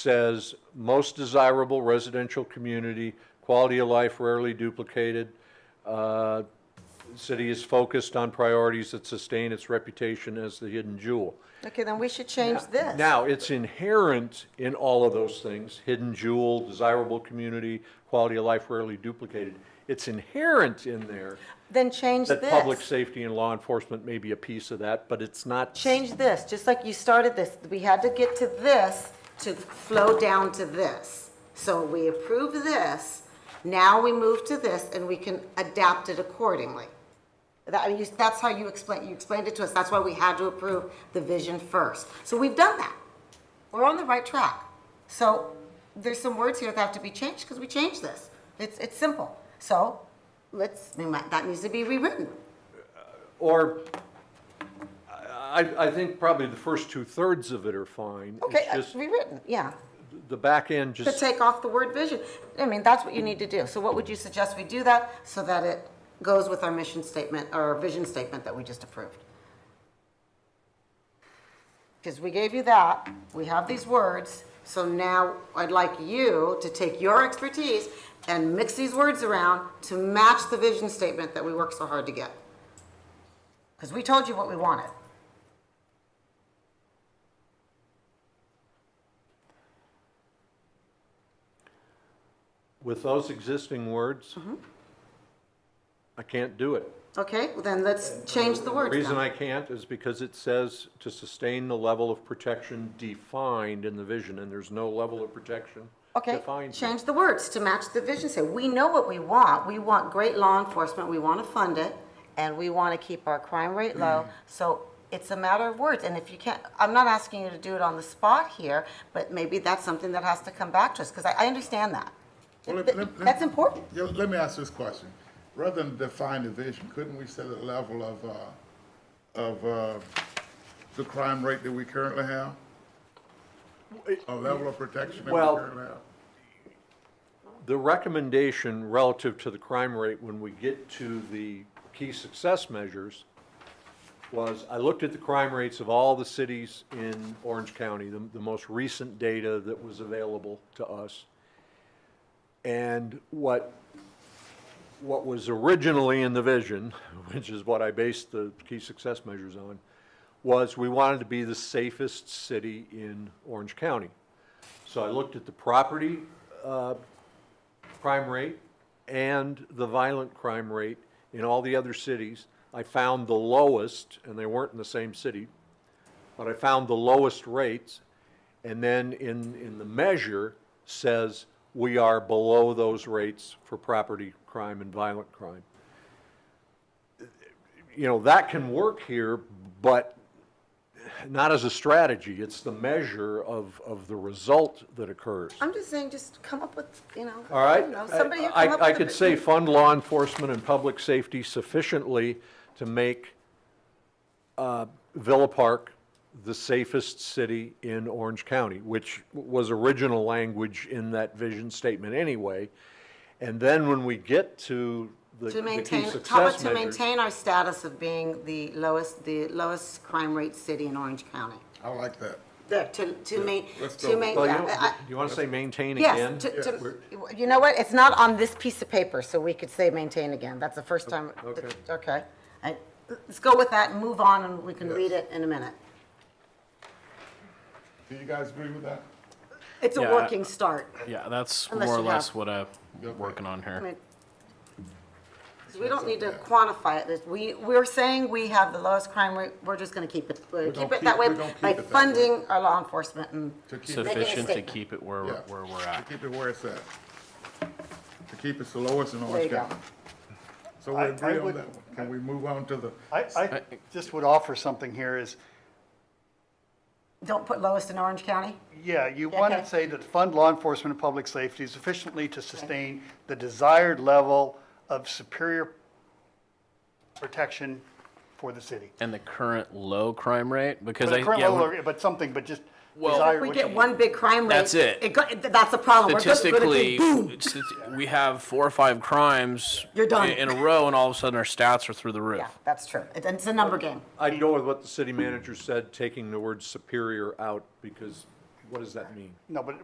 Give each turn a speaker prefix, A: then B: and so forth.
A: says most desirable residential community, quality of life rarely duplicated. Uh, City is focused on priorities that sustain its reputation as the hidden jewel.
B: Okay, then we should change this.
A: Now, it's inherent in all of those things, hidden jewel, desirable community, quality of life rarely duplicated. It's inherent in there
B: Then change
A: that public
B: this.
A: safety and law enforcement may be a piece of that, but it's not.
B: Change this, just like you started this. We had to get to this to flow down to this. So we approve this, now we move to this, and we can adapt it accordingly. That, I mean, you, that's how you explain, you explained it to us. That's why we had to approve the vision first. So we've done that. We're on the right track. So there's some words here that have to be changed because we changed this. It's, it's simple. So let's, we might- that needs to be rewritten.
A: Or, I, I- I think probably the first two-thirds of it are fine. It's
B: Okay, uh,
A: just
B: rewritten, yeah.
A: The back end
B: To
A: just,
B: take off the word vision. I mean, that's what you need to do. So what would you suggest we do that so that it goes with our mission statement or our vision statement that we just approved? Because we gave you that, we have these words, so now I'd like you to take your expertise and mix these words around to match the vision statement that we worked so hard to get. Because we told you what we wanted.
A: with those existing words,
B: Mm-hmm.
A: I can't do it.
B: Okay, well then let's change the words
A: The reason
B: now.
A: I can't is because it says to sustain the level of protection defined in the vision, and there's no level of protection
B: Okay,
A: defined. here.
B: change the words to match the vision statement. We know what we want. We want great law enforcement, we want to fund it, and we want to keep our crime rate
A: Mm.
B: low. So it's a matter of words, and if you can't, I'm not asking you to do it on the spot here, but maybe that's something that has to come back to us, because I, I understand that.
C: Well, let-
B: Th-
C: let- let-
B: That's important.
C: Yeah, let me ask this question. Rather than define the vision, couldn't we set a level of, uh, of, uh, the crime rate that we currently have? A level of protection that we
A: Well-
C: currently have?
A: The recommendation relative to the crime rate when we get to the key success measures was, I looked at the crime rates of all the cities in Orange County, the, the most recent data that was available to us. And what, what was originally in the vision, which is what I based the key success measures on, was we wanted to be the safest city in Orange County. So I looked at the property crime rate and the violent crime rate in all the other cities. I found the lowest, and they weren't in the same city, but I found the lowest rates. And then in, in the measure says we are below those rates for property crime and violent crime. You know, that can work here, but not as a strategy. It's the measure of, of the result that occurs.
B: I'm just saying, just come up with, you know,
A: All right?
B: I don't know, somebody here
A: I-
B: come up
A: I- I
B: with a
A: could
B: vi-
A: say fund law enforcement and public safety sufficiently to make uh, Villa Park the safest city in Orange County, which was original language in that vision statement anyway. And then when we get to the
B: To
A: the key
B: maintain, tell us
A: success
B: to
A: measures.
B: maintain our status of being the lowest, the lowest crime rate city in Orange County.
C: I like that.
B: There, to, to ma,
C: let's
B: to
C: go.
B: ma,
A: Well, you
B: yeah, I-
A: don't- you want to say maintain again?
B: yes, to, to, you know what, it's not on this piece of paper, so we could say maintain again, that's the first time.
A: okay.
B: Okay, I, let's go with that and move on, and we can read it in a minute.
C: Do you guys agree with that?
B: It's a
D: Yeah.
B: working start,
D: Yeah, that's
B: Unless
D: more or
B: you
D: less
B: have-
D: what I'm
C: Okay.
D: working on here.
B: I mean, 'cause we don't need to quantify it, This- we, we're saying we have the lowest crime rate, we're just gonna keep it, we're gonna
C: gonna
B: keep it
C: keep-
B: that way
C: we're gonna keep
B: by
C: it that way.
B: funding our law enforcement and,
C: To keep it-
D: Sufficient to
B: statement.
D: keep it where,
C: yeah,
D: where we're at.
C: To keep it where it's at. To keep it the lowest in
B: There you
C: Orange
B: go.
C: County. So we
E: I- I
C: agree on
E: would-
C: that one. Can we move on to the,
E: I, I just would offer something here is,
B: don't put lowest in Orange County?
E: yeah, you want
B: Okay.
E: to say that fund law enforcement and public safety sufficiently to sustain the desired level of superior protection for the city.
D: And the current low crime rate, because
E: But
D: I,
E: a current
D: yeah,
E: level,
D: when-
E: or- but something, but just
D: Well-
E: desire.
B: If we
E: what
B: get
E: you-
B: one big crime rate.
D: That's it.
B: go- that's a problem. We're just gonna go
D: statistically,
B: boom.
D: sti- we have four or five crimes
B: You're done.
D: in a row, and all of a sudden our stats are through the roof.
B: Yeah, that's true. It- It's a number game.
A: I'd go with what the city manager said, taking the word superior out, because what does that mean?
E: No, but